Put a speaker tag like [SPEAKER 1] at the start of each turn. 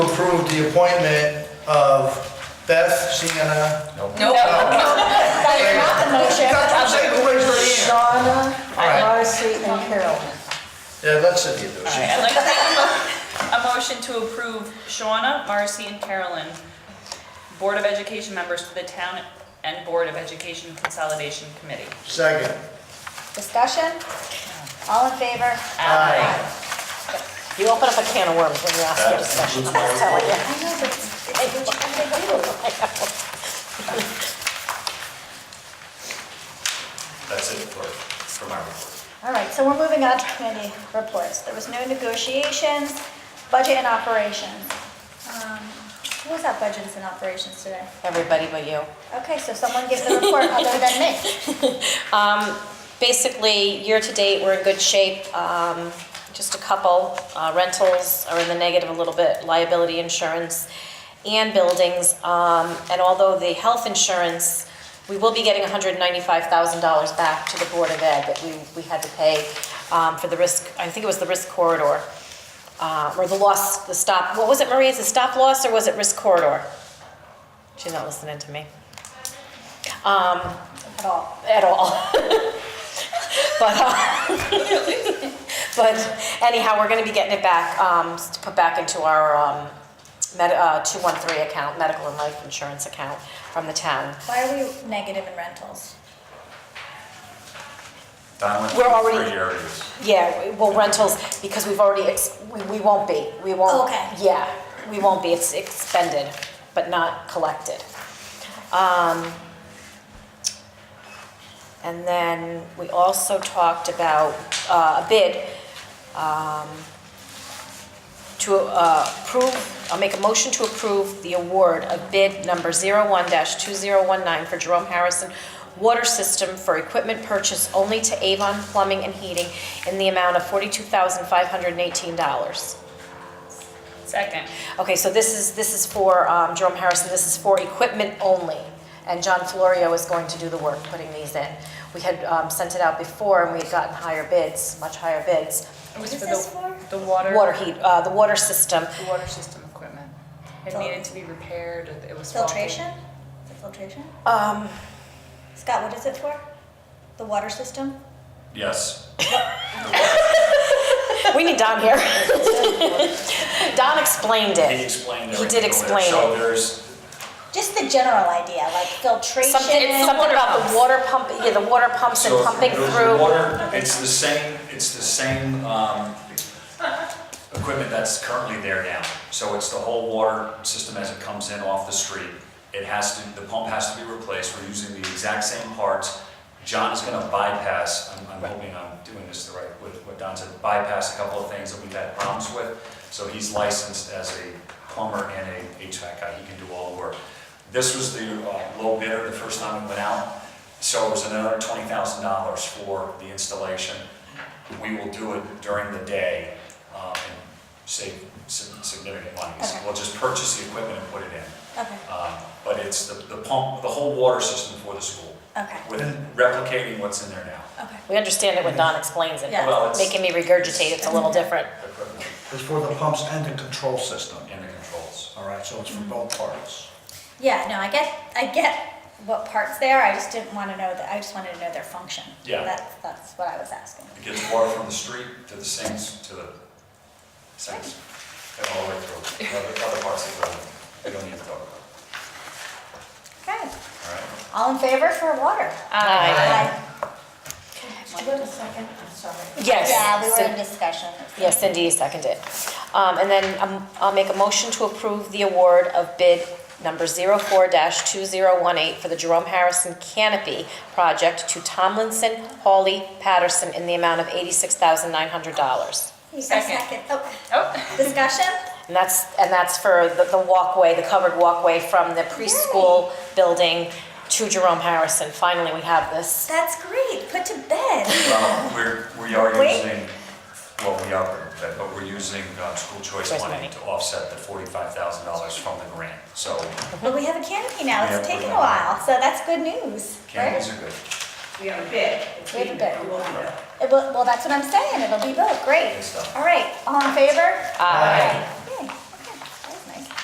[SPEAKER 1] approve the appointment of Beth Sienna.
[SPEAKER 2] No.
[SPEAKER 3] That's not the motion.
[SPEAKER 1] That's what I'm saying, raise your hand. All
[SPEAKER 3] Shauna,
[SPEAKER 1] right.
[SPEAKER 3] Marcy, and Carol.
[SPEAKER 1] Yeah, let's sit here, though.
[SPEAKER 2] All right, I'd like to make a mo- a motion to approve Shauna, Marcy, and Carolyn, Board of Education members to the Town and Board of Education Consolidation Committee.
[SPEAKER 1] Second.
[SPEAKER 4] Discussion? All in favor?
[SPEAKER 2] Aye.
[SPEAKER 3] You open up a can of worms when you ask for discussion, I'm telling you.
[SPEAKER 4] I know, but I don't
[SPEAKER 5] That's it for, for my report.
[SPEAKER 4] All right, so we're moving on to committee reports. There was no negotiations, budget and operations. Um, Who was at budgets and operations today?
[SPEAKER 3] Everybody but you.
[SPEAKER 4] Okay, so someone give the report other than me.
[SPEAKER 3] Um, Basically, year-to-date, we're in good shape. Um, Just a couple uh, rentals are in the negative a little bit, liability insurance and buildings. Um, And although the health insurance, we will be getting $195,000 back to the Board of Ed that we we had to pay um, for the risk, I think it was the risk corridor, uh, or the loss, the stop, what was it, Maria? Is it stop loss or was it risk corridor? She's not listening to me Um,
[SPEAKER 4] At all.
[SPEAKER 3] at all. but, uh, but anyhow, we're going to be getting it back um, to put back into our um, med- uh, 213 account, medical and life insurance account from the town.
[SPEAKER 4] Why are we negative in rentals?
[SPEAKER 5] Don went
[SPEAKER 3] We're
[SPEAKER 5] through
[SPEAKER 3] already-
[SPEAKER 5] three areas.
[SPEAKER 3] Yeah, well, rentals, because we've already, ex- we, we won't be. We won't.
[SPEAKER 4] Okay.
[SPEAKER 3] Yeah, we won't be. It's expended, but not collected. Um, and then we also talked about uh, a bid um, to uh, approve, I'll make a motion to approve the award of bid number 01-2019 for Jerome Harrison Water System for equipment purchase only to Avon Plumbing and Heating in the amount of $42,518.
[SPEAKER 2] Second.
[SPEAKER 3] Okay, so this is, this is for um, Jerome Harrison, this is for equipment only, and John Florio is going to do the work putting these in. We had um, sent it out before, and we had gotten higher bids, much higher bids.
[SPEAKER 2] It was
[SPEAKER 4] What is
[SPEAKER 2] for
[SPEAKER 4] this
[SPEAKER 2] the,
[SPEAKER 4] for?
[SPEAKER 2] the water.
[SPEAKER 3] Water heat, uh, the water system,
[SPEAKER 2] The water system equipment. It
[SPEAKER 4] Fil-
[SPEAKER 2] needed to be repaired, it- it was faulty.
[SPEAKER 4] Filtration? Is it filtration?
[SPEAKER 3] um,
[SPEAKER 4] Scott, what is it for? The water system?
[SPEAKER 5] Yes.
[SPEAKER 3] we need Don here. Don explained
[SPEAKER 5] He
[SPEAKER 3] it.
[SPEAKER 5] explained
[SPEAKER 3] He
[SPEAKER 5] everything.
[SPEAKER 3] did
[SPEAKER 5] over there.
[SPEAKER 3] explain
[SPEAKER 5] So
[SPEAKER 3] it.
[SPEAKER 5] there's,
[SPEAKER 4] Just the general idea, like filtration.
[SPEAKER 3] Something,
[SPEAKER 2] It's the
[SPEAKER 3] something
[SPEAKER 2] water
[SPEAKER 3] about
[SPEAKER 2] pumps.
[SPEAKER 3] the water pump, yeah, the water pumps and
[SPEAKER 5] so
[SPEAKER 3] pumping
[SPEAKER 5] there's
[SPEAKER 3] through.
[SPEAKER 5] water, it's the same, it's the same, um, equipment that's currently there now. So it's the whole water system as it comes in off the street. It has to, the pump has to be replaced. We're using the exact same parts. John is gonna bypass, I'm, I'm hoping I'm doing this the right, with what Don said, bypass a couple of things that we've had problems with. So he's licensed as a plumber and a HVAC guy. He can do all the work. This was the uh, low bidder the first time we went out. So it was another twenty thousand dollars for the installation. We will do it during the day um, and save sig- significant money. So
[SPEAKER 4] Okay.
[SPEAKER 5] We'll just purchase the equipment and put it in.
[SPEAKER 4] Okay,
[SPEAKER 5] Um, But it's the the pump, the whole water system for the school,
[SPEAKER 4] okay,
[SPEAKER 5] with replicating what's in there now.
[SPEAKER 4] okay.
[SPEAKER 3] We understand it when Don explains it.
[SPEAKER 4] Yeah.
[SPEAKER 5] Well, it's-
[SPEAKER 3] Making me regurgitate, it's a little different.
[SPEAKER 5] Equipment
[SPEAKER 1] It's for the pumps and the control system.
[SPEAKER 5] and the controls.
[SPEAKER 1] All right, so it's for both parts.
[SPEAKER 4] Yeah, no, I get, I get what parts they are, I just didn't wanna know that, I just wanted to know their function.
[SPEAKER 5] Yeah.
[SPEAKER 4] That's, that's what I was asking.
[SPEAKER 5] It gets water from the street to the sinks, to the sinks, and all the way through. Other other parts of the building, we don't need to talk about,
[SPEAKER 4] Okay,
[SPEAKER 5] all right?
[SPEAKER 4] all in favor for water?
[SPEAKER 3] Aye.
[SPEAKER 4] I go to second, I'm sorry.
[SPEAKER 3] Yes.
[SPEAKER 4] Yeah, we
[SPEAKER 3] So-
[SPEAKER 4] were in discussion.
[SPEAKER 3] Yes, Cindy seconded. Um, And then um, I'll make a motion to approve the award of bid number 04-2018 for the Jerome Harrison Canopy Project to Tomlinson, Hawley, Patterson in the amount of $86,900.
[SPEAKER 4] You said
[SPEAKER 2] Second.
[SPEAKER 4] second, oh,
[SPEAKER 2] Oh,
[SPEAKER 4] discussion?
[SPEAKER 3] And that's, and that's for the the walkway, the covered walkway from the preschool building to Jerome Harrison. Finally, we have this.
[SPEAKER 4] That's great, put to bed.
[SPEAKER 5] Well, we're, we are
[SPEAKER 4] Wait.
[SPEAKER 5] using, well, we are, but we're using uh, school choice
[SPEAKER 3] Choice
[SPEAKER 5] money
[SPEAKER 3] money.
[SPEAKER 5] to offset the forty-five thousand dollars from the grant. So
[SPEAKER 4] But we have a canopy now,
[SPEAKER 5] Yeah,
[SPEAKER 4] it's
[SPEAKER 5] we
[SPEAKER 4] taken a
[SPEAKER 5] have-
[SPEAKER 4] while, so that's good news, right?
[SPEAKER 5] candies are good,
[SPEAKER 6] We have a bid.
[SPEAKER 4] We have a Eh, bid.
[SPEAKER 6] We'll have a-
[SPEAKER 4] It will- Well, that's what I'm saying, it'll be built, great.
[SPEAKER 5] good stuff.
[SPEAKER 4] All right, all in favor?
[SPEAKER 3] Aye.